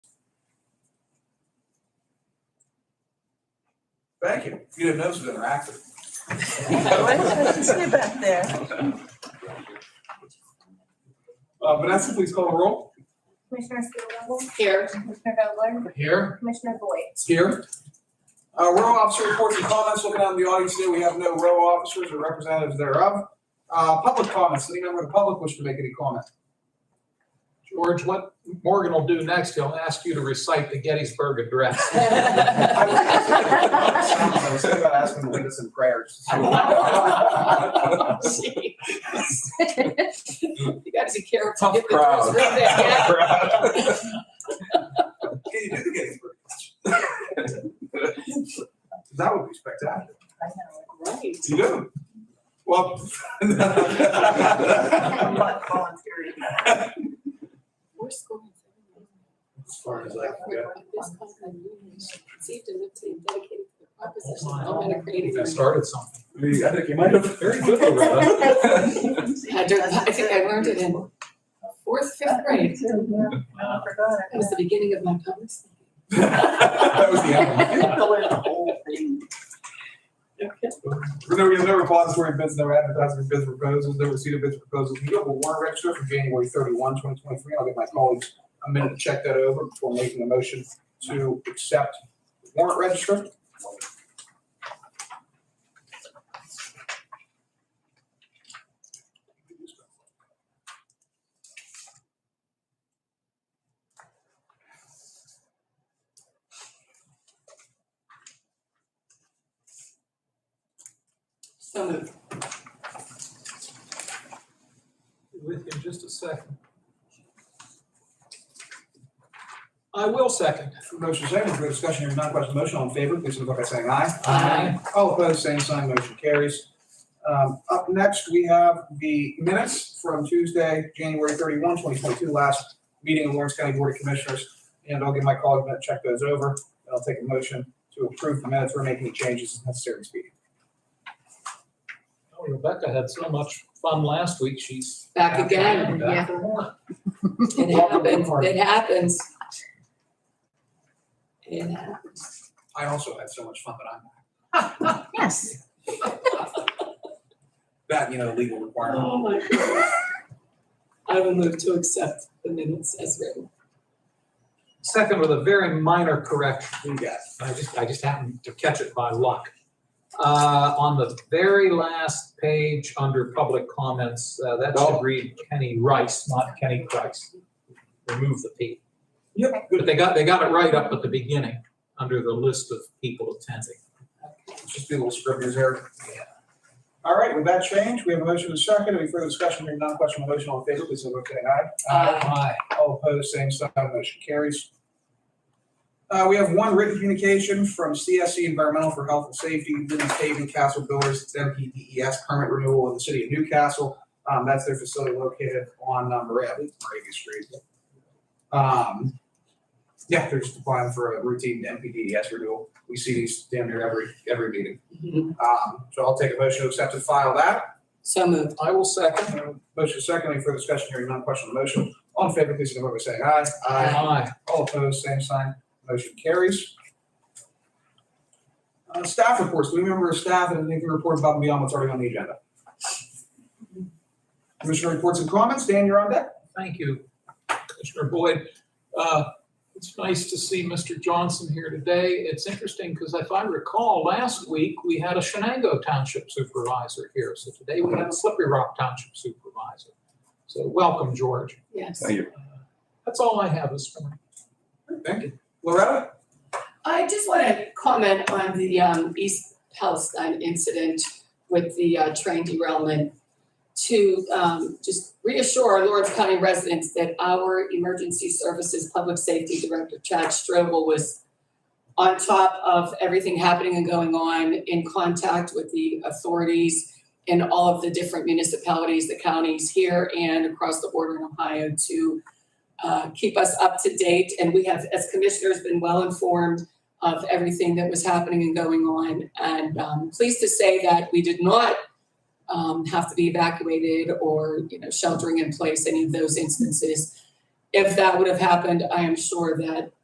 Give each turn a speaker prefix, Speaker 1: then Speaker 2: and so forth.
Speaker 1: Thank you. You didn't notice we were active.
Speaker 2: I can see back there.
Speaker 1: Uh, Vanessa, please call the roll.
Speaker 3: Commissioner Steelvogel,
Speaker 4: Here.
Speaker 3: Commissioner Vogler,
Speaker 1: Here.
Speaker 3: Commissioner Boyd.
Speaker 1: Here. Uh, row officer reports and comments. Looking out in the audience today, we have no row officers or representatives thereof. Uh, public comments. Any member of the public wish to make any comment?
Speaker 5: George, what Morgan will do next, he'll ask you to recite the Gettysburg Address.
Speaker 1: I was thinking about asking to lead us in prayers. Tough
Speaker 4: You gotta be careful. Get the
Speaker 1: crowd.
Speaker 4: doors real big, yeah.
Speaker 1: Can you do the Gettysburg? That would be spectacular.
Speaker 4: Right.
Speaker 1: You do. Well. As
Speaker 2: But volunteering.
Speaker 4: We're scoring.
Speaker 1: far as I can
Speaker 4: This
Speaker 1: go.
Speaker 4: content is conceived and written and dedicated to the proposition of government and
Speaker 5: I think I
Speaker 4: creating.
Speaker 5: started something.
Speaker 1: I mean, I think you might have. Very good, Loretta.
Speaker 4: I don't- I think I learned it in fourth, fifth grade.
Speaker 2: I forgot
Speaker 4: That was the beginning of my public speaking.
Speaker 1: That was the end. No, we have no repository bids, no advertising bids proposals, no receipt of bids proposals. We do have a warrant register for January 31, 2023. twenty twenty-three. I'll give my colleagues a minute to check that over before making a motion to accept the warrant register.
Speaker 4: So moved.
Speaker 5: With you in just a second. I will second.
Speaker 1: Motion second, for discussion, hearing none, question on the motion, all in favor, please signify by saying aye.
Speaker 4: Aye.
Speaker 1: All opposed, same sign, motion carries. Um, Up next, we have the minutes from Tuesday, January 31, 2022, last meeting of Lawrence County Board of Commissioners. And I'll give my colleague a minute to check those over, and I'll take a motion to approve the minutes or make any changes as necessary in speed.
Speaker 5: Oh, Rebecca had so much fun last week, she's.
Speaker 4: Back again.
Speaker 5: Back for more.
Speaker 4: It happens, it happens. It happens.
Speaker 1: I also had so much fun that I'm,
Speaker 2: Yes.
Speaker 1: that, you know, legal requirement.
Speaker 4: Oh, my goodness. I will move to accept the minutes as written.
Speaker 5: Second with a very minor correction.
Speaker 1: You got it.
Speaker 5: I just, I just happened to catch it by luck. Uh, on the very last page, under public comments, uh, that
Speaker 1: Oh.
Speaker 5: should read Kenny Rice, not Kenny Christ. Remove the P.
Speaker 1: Yep,
Speaker 5: But
Speaker 1: good.
Speaker 5: they got, they got it right up at the beginning, under the list of people attending.
Speaker 1: Just be a little scrivener's error. All right, with that change, we have a motion to second. Any further discussion, hearing none, question on the motion, all in favor, please signify by saying aye.
Speaker 5: Aye.
Speaker 1: All opposed, same sign, motion carries. Uh, we have one written communication from CSC Environmental for Health and Safety, Women's Haven Castle Builders, it's MPDES E permit renewal in the city of Newcastle. Um, that's their facility located on, um, Morav- I believe it's Moravia Street. Um, yeah, they're just applying for a routine MPDES E renewal. We see these damn near every, every meeting. Um, so I'll take a motion to accept and file that. Uh,
Speaker 4: So moved.
Speaker 5: I will second.
Speaker 1: Motion secondly for discussion hearing none, question on the motion. All in favor, please signify by saying aye.
Speaker 5: Aye.
Speaker 1: All opposed, same sign. Motion carries. Uh, staff reports, do we remember our staff and anything to report above and beyond what's already on the agenda? Commissioner reports and comments, Dan, you're on deck.
Speaker 5: Thank you, Commissioner Boyd. Uh, It's nice to see Mr. Johnson here today. It's interesting because if I recall, last week, we had a Shenango Township Supervisor here. So today we have a Slippery Rock Township Supervisor. So welcome, George.
Speaker 4: Yes.
Speaker 5: That's all I have this morning.
Speaker 1: Thank you. Loretta?
Speaker 4: I just want to comment on the um, East Palestine incident with the uh, train derailment to um, just reassure our Lawrence County residents that our Emergency Services Public Safety Director, Chad Strobel, was on top of everything happening and going on, in contact with the authorities in all of the different municipalities, the counties here and across the border in Ohio to uh, keep us up to date. And we have, as commissioners, been well informed of everything that was happening and going on. And um, pleased to say that we did not um, have to be evacuated or, you know, sheltering in place, any of those instances. If that would have happened, I am sure that